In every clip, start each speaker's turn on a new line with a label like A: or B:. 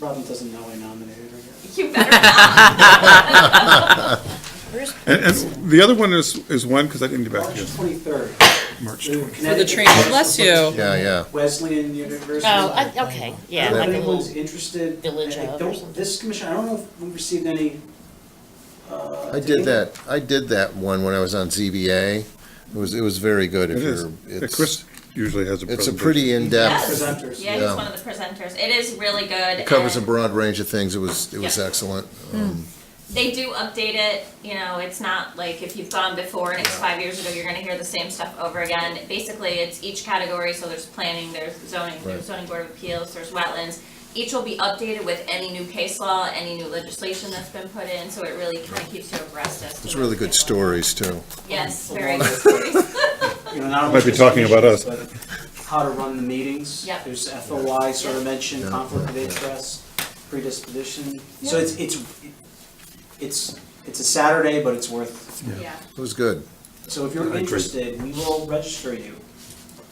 A: Robin doesn't know I nominated her yet.
B: You better not.
C: And, and the other one is, is when, because I didn't get back
A: March
C: to you.
A: 23rd.
C: March
A: the
C: 20.
D: For the
A: Connecticut
D: training, bless you.
E: Yeah, yeah.
A: Wesleyan University.
F: Oh, I- okay, yeah,
A: If
F: like a
A: anyone's
F: little,
A: interested.
F: village
A: I- I
F: of or
A: don't-
F: something.
A: This commission, I don't know if we received any. uh,
E: I did that, I did that one when I was on ZBA. It was, it was very good.
C: It
E: If
C: is.
E: you're,
C: Yeah, Chris
E: it's,
C: usually has a
E: it's a
C: presentation.
E: pretty in-depth,
A: Presenters.
B: Yeah,
E: Yeah.
B: he's one of the presenters. It is really good.
E: it covers a
B: and
E: broad range of things. It was, it was
B: Yeah.
E: excellent. Um,
B: They do update it, you know, it's not like if you've gone before and it's five years ago, you're gonna hear the same stuff over again. Basically, it's each category, so there's planning, there's zoning, there's
E: Right.
B: zoning board of appeals, there's wetlands. Each will be updated with any new case law, any new legislation that's been put in, so it really kinda keeps you abreast as to.
E: It's really good
B: what's going on.
E: stories, too.
B: Yes, very good stories.
A: You know, not only
C: Might be talking about us.
A: but How to run the meetings.
B: Yep.
A: There's FOI sort of mentioned,
E: Yeah.
A: conflict of interest, predisposition. So
B: Yeah.
A: it's, it's, it's, it's a Saturday, but it's worth,
B: Yeah.
E: It was good.
A: so if you're interested, we will register you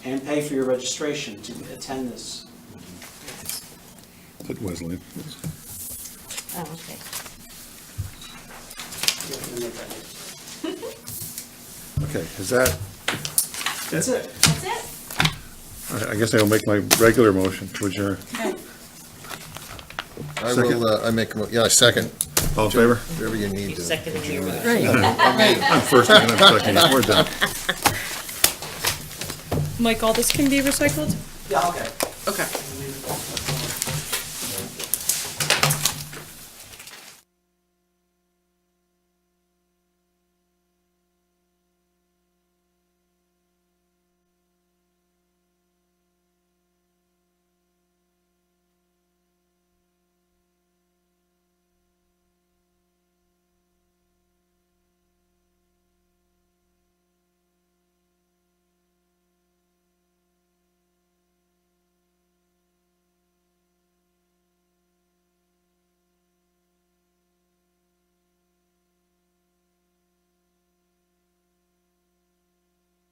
A: and pay for your registration to attend this.
C: At Wesleyan.
F: oh, okay.
E: Okay, is that,
A: That's it.
B: That's it.
C: I I guess I'll make my regular motion to adjourn.
E: I
C: Second.
E: will, uh, I make, a mo- yeah, second,
C: All in favor?
E: whatever you need
F: He's
E: to.
F: seconding your motion.
C: I'm first and I'm second. We're done.
D: Mike, all this can be recycled?
A: Yeah, okay.
D: Okay.